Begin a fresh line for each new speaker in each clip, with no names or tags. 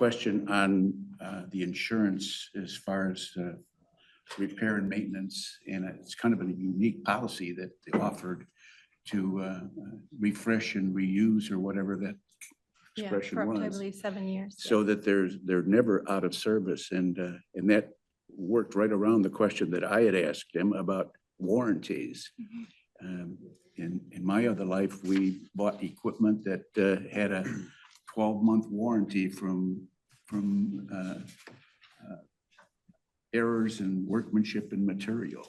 question on uh, the insurance as far as uh, repair and maintenance. And it's kind of a unique policy that they offered to uh, refresh and reuse or whatever that
Yeah,
expression
for up to, I
was.
believe seven years.
so that there's, they're never out of service. And, uh, and that worked right around the question that I had asked him about warranties.
Mhm.
Um, In, in my other life, we bought equipment that uh, had a twelve-month warranty from, from uh, uh, errors in workmanship and material.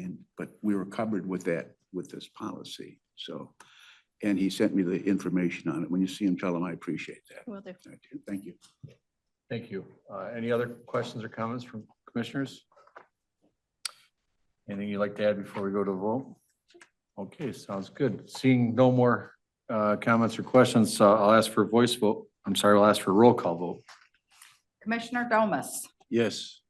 And, but we were covered with that, with this policy, so. And he sent me the information on it. When you see him, tell him I appreciate that.
Will do.
I do. Thank you.
Thank you. Uh, Any other questions or comments from commissioners? Anything you'd like to add before we go to the vote? Okay, sounds good. Seeing no more uh, comments or questions, uh, I'll ask for a voice vote. I'm sorry, I'll ask for a roll call vote.
Commissioner Domas,
Yes.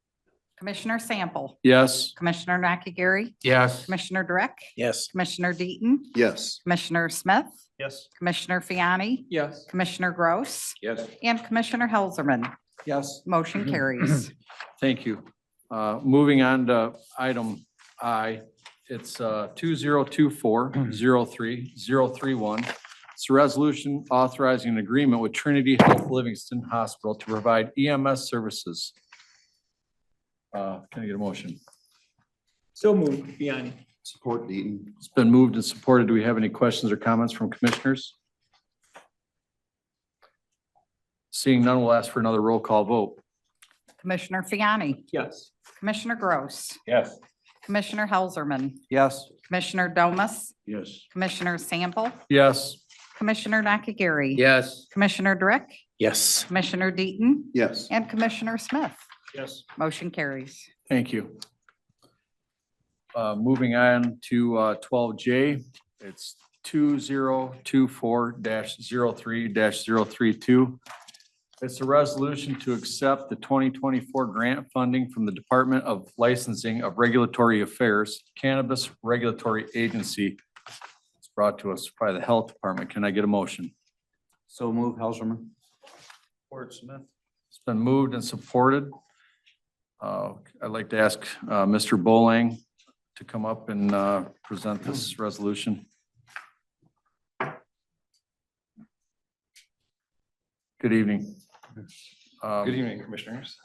Commissioner Sample,
Yes?
Commissioner Nakagiri,
Yes.
Commissioner Drake,
Yes.
Commissioner Deaton,
Yes.
Commissioner Smith,
Yes.
Commissioner Fiani,
Yes.
Commissioner Gross,
Yes.
and Commissioner Helserman.
Yes.
Motion carries.
Thank you. Uh, Moving on to item I, it's uh, two zero two four zero three zero three one. It's a resolution authorizing an agreement with Trinity Health Livingston Hospital to provide EMS services. Uh, Can I get a motion?
So moved, Biani.
Support Deaton.
It's been moved and supported. Do we have any questions or comments from commissioners? Seeing none, we'll ask for another roll call vote.
Commissioner Fiani,
Yes.
Commissioner Gross,
Yes.
Commissioner Helserman,
Yes.
Commissioner Domas,
Yes.
Commissioner Sample,
Yes.
Commissioner Nakagiri,
Yes.
Commissioner Drake,
Yes.
Commissioner Deaton,
Yes.
and Commissioner Smith.
Yes.
Motion carries.
Thank you. Uh, Moving on to uh, twelve J, it's two zero two four 3 32 It's a resolution to accept the twenty twenty-four grant funding from the Department of Licensing of Regulatory Affairs Cannabis Regulatory Agency. It's brought to us by the Health Department. Can I get a motion?
So move, Helserman. Support Smith.
It's been moved and supported. Uh, I'd like to ask uh, Mr. Bowling to come up and uh, present this resolution. Good evening.
Good
Um,
evening, Commissioners.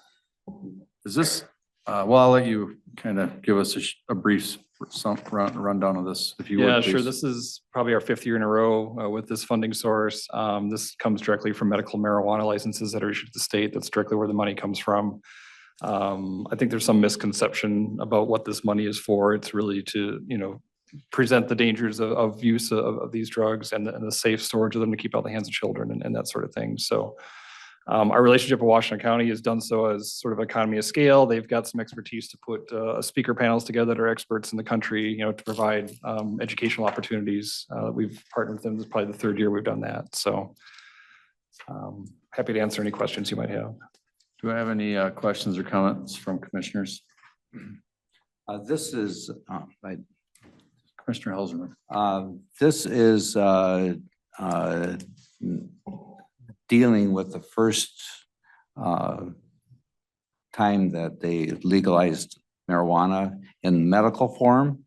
Is this, uh, well, I'll let you kind of give us a sh- a brief some run- rundown of this, if you would.
Yeah, sure.
please.
This is probably our fifth year in a row uh, with this funding source. Um, This comes directly from medical marijuana licenses that are issued to the state. That's directly where the money comes from. Um, I think there's some misconception about what this money is for. It's really to, you know, present the dangers of, of use of, of these drugs and the, and the safe storage of them to keep out of the hands of children and, and that sort of thing. So um, our relationship with Washington County has done so as sort of economy of scale. They've got some expertise to put uh, speaker panels together that are experts in the country, you know, to provide um, educational opportunities. Uh, We've partnered with them. This is probably the third year we've done that. So um, happy to answer any questions you might have.
Do I have any uh, questions or comments from commissioners?
Uh, This is, um, I-
Commissioner Helserman.
um, this is uh, uh, dealing with the first uh, time that they legalized marijuana in medical form.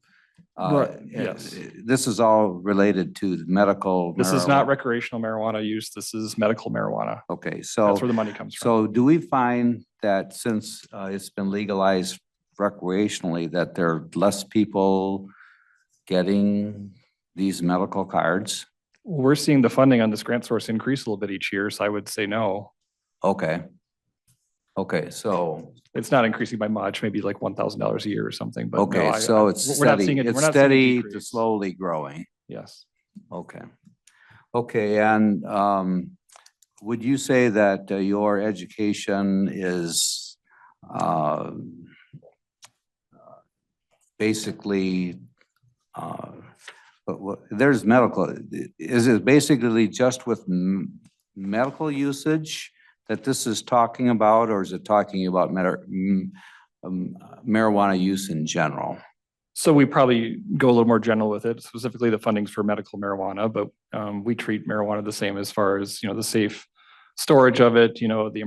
Uh,
Right, yes.
This is all related to the medical.
This is not
marijuana.
recreational marijuana use. This is medical marijuana.
Okay,
That's
so,
where the money comes from.
so do we find that since uh, it's been legalized recreationally, that there are less people getting these medical cards?
We're seeing the funding on this grant source increase a little bit each year, so I would say no.
Okay. Okay, so,
It's not increasing by much, maybe like one thousand dollars a year or something, but. no,
okay,
I-
so
I-
it's
we're not
steady,
seeing it-
it's
we're not seeing a
steady to
decrease.
slowly growing.
Yes.
Okay. Okay, and um, would you say that uh, your education is um, uh, basically, uh, but what, there's medical, is it basically just with m- medical usage that this is talking about, or is it talking about mar- m- um, marijuana use in general?
So we probably go a little more general with it, specifically the fundings for medical marijuana, but um, we treat marijuana the same as far as, you know, the safe storage of it, you know, the